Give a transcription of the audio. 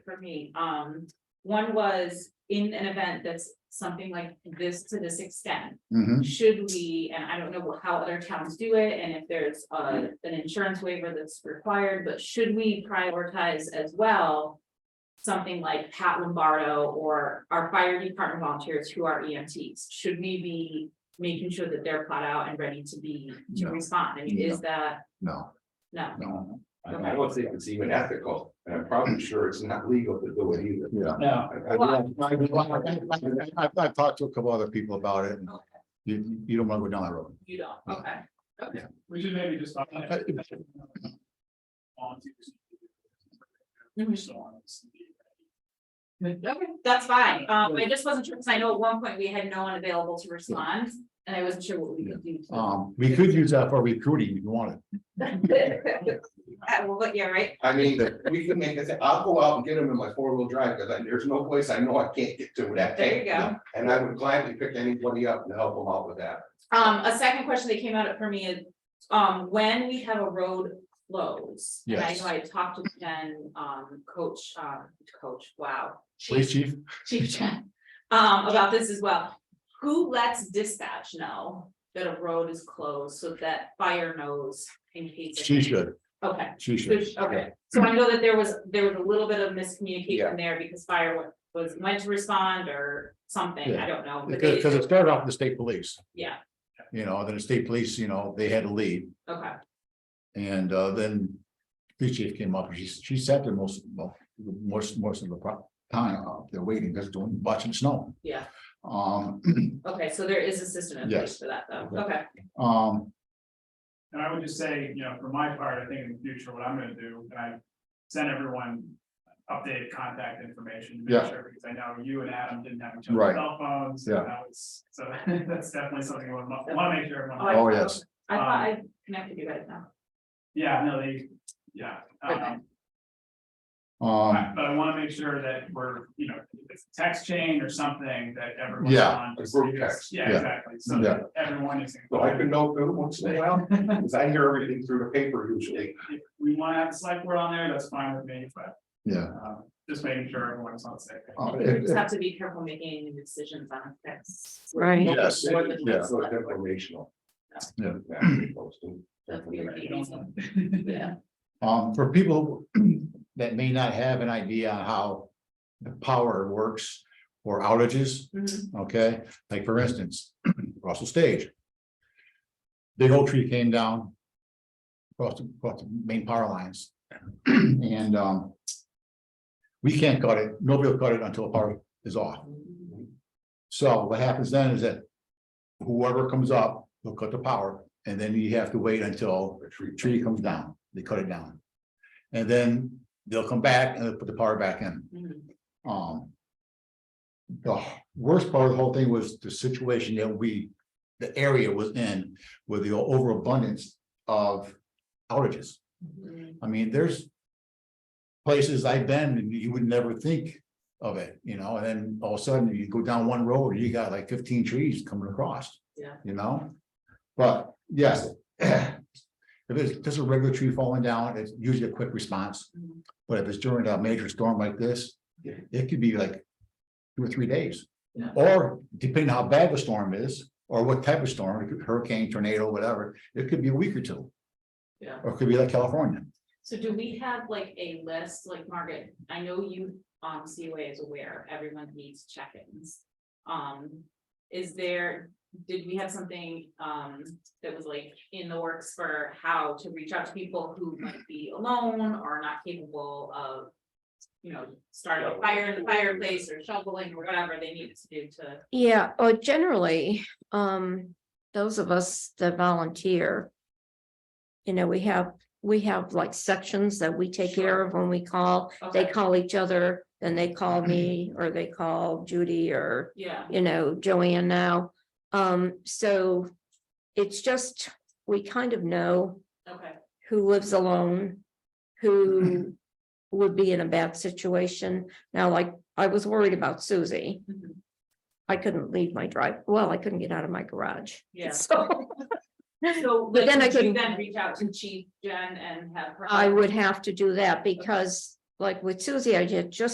for me, um, one was in an event that's something like this to this extent. Mhm. Should we, and I don't know how other towns do it, and if there's Hmm. uh an insurance waiver that's required, but should we prioritize as well? Something like Pat Lombardo or our fire department volunteers who are EMTs, should we be making sure that they're plowed out and ready to be, to No. respond? I mean, is that, No, no, no, I don't think it's even ethical, and I'm probably sure it's not legal to do it either. yeah. No, I- I- I- I've talked to a couple other people about it and Okay. you, you don't want to go down that road. you don't, okay. we should maybe just. talk about that. Volunteers. Hmm. Mhm. So on, it's- Okay, that's fine. Um, I just wasn't sure, because I know at one point we had no one available to respond, and I wasn't sure what we could do. Um, we could use that for recruiting if you wanted. to- Uh, well, but yeah, right, I mean, we can make it, I'll go out and get them in my four-wheel drive, because there's no place I know I can't get to that there you day. go. And I would gladly pick anybody up to help them out with that. Um, a second question that came out for me is, um, when we have a road close. and I Yes. know I talked to Jen, um, coach, um, coach, wow. Police chief, Chief Chen, um, about this as well. Who lets dispatch know that a road is closed so that fire knows in case? it- she should, Okay. she should. Which, okay, so I know that there was, there was a little bit of miscommunication there because fire wa- was meant to respond or something, I don't know. but Because, because it they- started off with the state police, Yeah, you know, then the state police, you know, they had to leave. okay, And uh, then police chief came up, and she, she sat there most, well, most, most of the pro- time, uh, they're waiting, just doing, watching snow. yeah, Um, okay, so there is a system in place Yes. for that though, Yeah. okay, um, And I would just say, you know, for my part, I think in the future, what I'm gonna do, and I send everyone updated contact information. to Yeah. make sure Because I know you and Adam didn't have each other's Right. cell phones. Yeah. and that was- So that's definitely something I want to make sure Oh, I- everyone, oh, yes, I thought I connected you guys now. yeah, no, they, yeah. Okay. Um, um, Um, Right, But I wanna make sure that we're, you know, if it's a text chain or something that everyone's Yeah, on. a just- group text. Yeah, Yeah. exactly, so Yeah. that everyone is. So I can know through once in a while, because I hear everything through the paper usually. If We wanna have a select board on there, that's fine with me, but, yeah. um, just making sure everyone's on the same. page. Uh, You if- just have to be careful making any decisions on this. Right. Yes, More than yeah. just So it's like- informational. Yeah. posting. That's weird. I don't know. Yeah, Um, for people that may not have an idea on how the power works or outages, Mhm. okay? Like for instance, Russell Stage. Big old tree came down. Across, the- across the main power lines. And, um. We can't cut it, nobody will cut it until power is off. So what happens then is that whoever comes up will cut the power, and then you have to wait until A tree. tree comes down, they cut it down. And then they'll come back and they'll put the power back in, Mhm. um. The worst part of the whole thing was the situation that we, the area was in with the overabundance of outages. Mhm. I mean, there's. Places I've been and you would never think of it, you know, and then all of a sudden you go down one road, you got like fifteen trees coming across. Yeah. You know? But yes. If it's just a regular tree falling down, it's usually a quick response. Mhm. But if it's during a major storm like this, Yeah. it could be like. Two or three days. Yeah. Or depending how bad the storm is, or what type of storm, it could- hurricane, tornado, whatever, it could be a week or two. Yeah. Or it could be like California. So do we have like a list, like Margaret, I know you, um, COA is aware, everyone needs check-ins. Um, is there, did we have something, um, that was like in the works for how to reach out to people who might be alone or not capable of? You know, starting a fire in the fireplace or shoveling or whatever they needed to do to, Yeah, or generally, um, those of us that volunteer. You know, we have, we have like sections that we take care of when we call, they okay, call each other, then they call me, or they call Judy or, yeah, you know, Joanne now. Um, so it's just, we kind of know okay, who lives alone, who would be in a bad situation. Now, like, I was worried about Susie. mhm, I couldn't leave my drive, well, I couldn't get out of my garage. yeah. So So, But like, then I could you couldn't- then reach out to Chief Jen and have her? I would have to do that because like with Susie, I had just